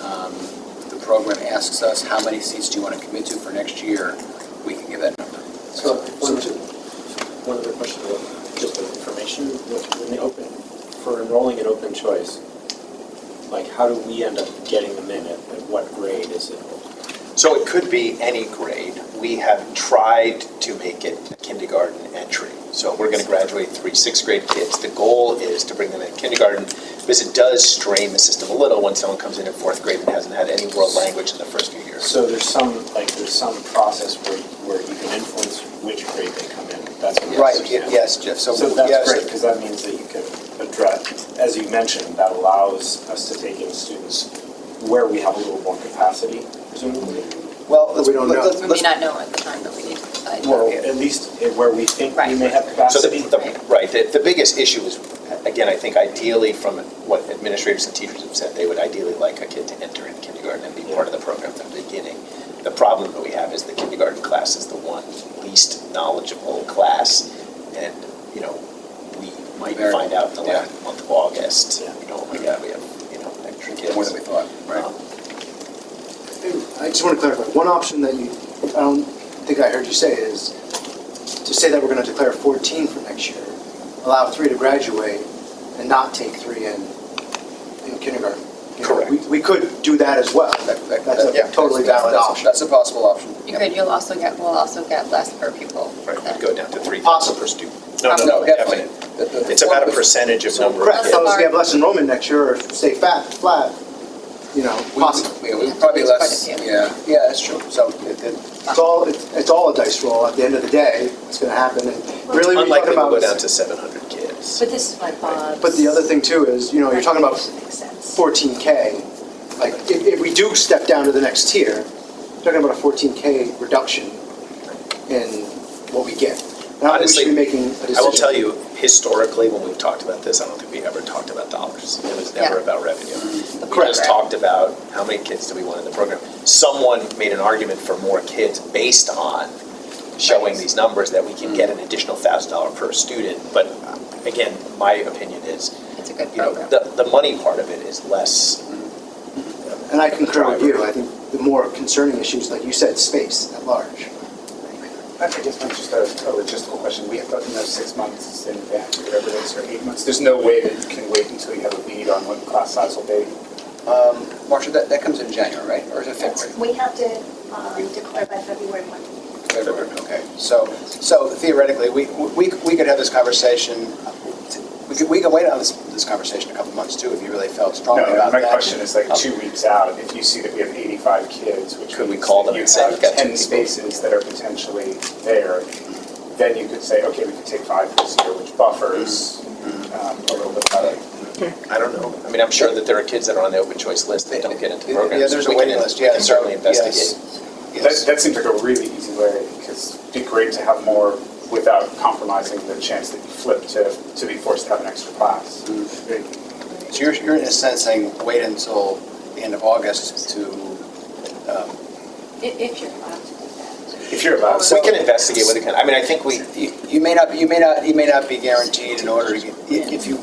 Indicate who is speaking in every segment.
Speaker 1: Um, program asks us, how many seats do you want to commit to for next year, we can give that number.
Speaker 2: So, one, two, one other question, about just the information, when they open, for enrolling in open choice, like, how do we end up getting them in, at at what grade is it?
Speaker 3: So it could be any grade. We have tried to make it a kindergarten entry. So we're going to graduate three sixth grade kids. The goal is to bring them in kindergarten because it does strain the system a little when someone comes in in fourth grade and hasn't had any world language in the first few years.
Speaker 2: So there's some, like, there's some process where, where you can influence which grade they come in, that's what I'm
Speaker 1: Right,
Speaker 2: understanding.
Speaker 1: yes, Jeff, so,
Speaker 2: So
Speaker 1: yes,
Speaker 2: that's great, because that means that you can address, as you mentioned, that allows us to take in students where we have a little more capacity, presumably.
Speaker 1: well, let's,
Speaker 4: We don't know.
Speaker 1: let's,
Speaker 5: We may
Speaker 1: let's,
Speaker 5: not know at the time, but we need to decide.
Speaker 2: Well, at least eh, where we think we may have
Speaker 3: So the,
Speaker 2: capacity.
Speaker 3: the, right, the, the biggest issue is, again, I think ideally from what administrators and teachers have said, they would ideally like a kid to enter in kindergarten and be part of the program from the beginning. The problem that we have is the kindergarten class is the one least knowledgeable class, and, you know, we might
Speaker 1: Very.
Speaker 3: find out in the
Speaker 1: Yeah.
Speaker 3: last month of August,
Speaker 2: Yeah.
Speaker 3: you know, oh my God, we have, you know, extra kids.
Speaker 1: more than we thought, right?
Speaker 3: Um,
Speaker 4: I just want to clarify, one option that you, I don't think I heard you say is to say that we're going to declare 14 for next year, allow three to graduate and not take three in, in kindergarten. You know,
Speaker 3: Correct.
Speaker 4: we- We could do that as well.
Speaker 1: That- that-
Speaker 4: That's
Speaker 1: that-
Speaker 4: a totally
Speaker 1: that's-
Speaker 4: valid
Speaker 1: that's-
Speaker 4: option.
Speaker 1: That's a possible option.
Speaker 5: You could, you'll also get, we'll also get less per pupil.
Speaker 3: Right,
Speaker 5: then.
Speaker 3: we'd go down to three
Speaker 4: Possible.
Speaker 3: per student. No, no,
Speaker 1: No,
Speaker 3: no,
Speaker 1: definitely.
Speaker 3: definitely.
Speaker 1: The- the-
Speaker 3: It's about a
Speaker 1: the-
Speaker 3: percentage of number of
Speaker 4: Correct,
Speaker 3: kids.
Speaker 4: so if we have less enrollment next year or stay fat, flat, you know,
Speaker 1: We,
Speaker 4: possible.
Speaker 1: we- we probably less,
Speaker 5: Quite a few.
Speaker 1: yeah, yeah, that's true, so it, it,
Speaker 4: It's all, it's it's all a dice roll. At the end of the day, it's going to happen. And really, when you
Speaker 3: Unlikely
Speaker 4: talk
Speaker 3: to
Speaker 4: about.
Speaker 3: go down to seven hundred kids.
Speaker 6: But this is why Bob's.
Speaker 4: But the other thing too is, you know, you're talking about
Speaker 6: recommendation Makes sense.
Speaker 4: 14K, like, if, if we do step down to the next tier, we're talking about a 14K reduction in what we get. And I don't think we should
Speaker 3: Honestly,
Speaker 4: be making a decision.
Speaker 3: I will tell you, historically, when we've talked about this, I don't think we ever talked about dollars. It was never
Speaker 5: Yeah.
Speaker 3: about revenue.
Speaker 5: The
Speaker 3: We just
Speaker 5: program.
Speaker 3: talked about how many kids do we want in the program. Someone made an argument for more kids based on showing
Speaker 5: Right. Mm-hmm.
Speaker 3: these numbers that we can get an additional thousand dollar per student. But uh, again, my opinion is,
Speaker 5: It's a good
Speaker 3: you know,
Speaker 5: program.
Speaker 3: the, the money part of it is less.
Speaker 4: Mm-hmm. And I concur with you, I think the more concerning issues, like you said, space at large.
Speaker 7: I guess that's just a a logistical question. We have to know six months in advance, or whatever it is, or eight months. There's no way that you can wait until you have a lead on what the class size will be.
Speaker 1: um, Marcia, that, that comes in January, right, or is it February?
Speaker 8: We have to um, declare by February 1.
Speaker 1: February, okay. So, so theoretically, we, we, we could have this conversation, we could, we could wait on this, this conversation a couple months too, if you really felt strongly
Speaker 7: No,
Speaker 1: about that.
Speaker 7: my question is like
Speaker 1: Um,
Speaker 7: two weeks out, if you see that we have 85 kids, which
Speaker 3: Could we
Speaker 7: means
Speaker 3: call
Speaker 7: that
Speaker 3: them and say,
Speaker 7: You
Speaker 3: "We've got
Speaker 7: have
Speaker 3: two people."
Speaker 7: 10 spaces that are potentially there, then you could say, okay, we could take five this year, which buffers
Speaker 1: Mm-hmm.
Speaker 7: um, a little bit better.
Speaker 3: I don't know. I mean, I'm sure that there are kids that are on the open choice list that don't get into
Speaker 1: Yeah,
Speaker 3: programs.
Speaker 1: there's a
Speaker 3: We can-
Speaker 1: waiting list,
Speaker 3: we can
Speaker 1: yeah,
Speaker 3: certainly
Speaker 1: yes.
Speaker 3: investigate.
Speaker 7: That, that seems like a really easy way, because it'd be great to have more without compromising the chance that you flip to, to be forced to have an extra class.
Speaker 1: So you're, you're in a sense saying, wait until the end of August to, um,
Speaker 6: I- If you're allowed to do that.
Speaker 7: If you're allowed.
Speaker 3: We can investigate what it can, I mean, I think we,
Speaker 1: you, you may not, you may not, you may not be guaranteed in order to get, i- if you,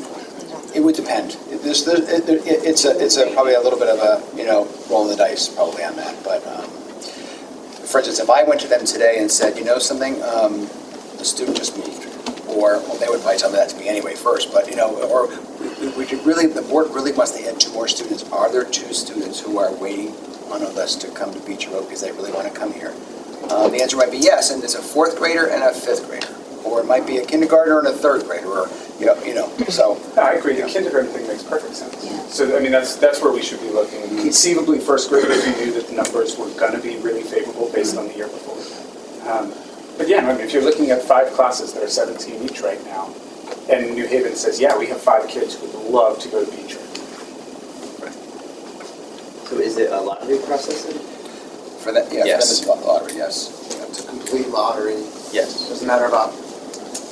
Speaker 1: it would depend. There's, there, it, it- it's a, it's a, probably a little bit of a, you know, roll of the dice probably on that, but, um, for instance, if I went to them today and said, you know something, um, the student just moved, or, well, they would probably tell me that to me anyway first, but, you know, or, we, we could really, the board really wants to add two more students. Are there two students who are waiting on us to come to Beach Road because they really want to come here? Uh, the answer might be yes, and it's a fourth grader and a fifth grader, or it might be a kindergartner and a third grader, or, you know, you know, so.
Speaker 7: No, I agree, the kindergarten thing makes perfect sense.
Speaker 6: Yeah.
Speaker 7: So, I mean, that's, that's where we should be looking. Conceivably, first graders, we knew that the numbers were gonna be really favorable based on the year before. Um, But yeah, I mean, if you're looking at five classes that are seventeen each right now, and New Haven says, yeah, we have five kids who would love to go to Beach Road.
Speaker 9: So is it a lottery process? then?
Speaker 1: For that, yeah, for them
Speaker 3: Yes.
Speaker 1: it's lot- lottery, yes.
Speaker 4: It's a complete lottery,
Speaker 3: Yes.
Speaker 4: doesn't matter about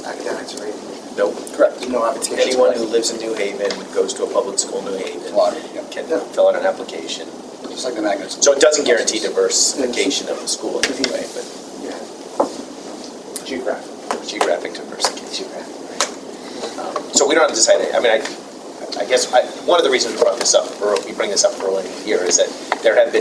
Speaker 4: academics or anything,
Speaker 3: Nope.
Speaker 1: Correct.
Speaker 4: there's no application.
Speaker 3: Anyone who lives in New Haven, goes to a public school in New Haven,
Speaker 1: Lottery, yeah.
Speaker 3: can fill out an application.
Speaker 1: Just like the magnet school.
Speaker 3: So it doesn't guarantee diversification of the school in any way, but
Speaker 4: Yeah.
Speaker 7: Geographic.
Speaker 3: geographic diversification. Um, So we don't have to decide, it. I mean, I, I guess, I, one of the reasons we brought this up, or we bring this up early in the year, is that there have been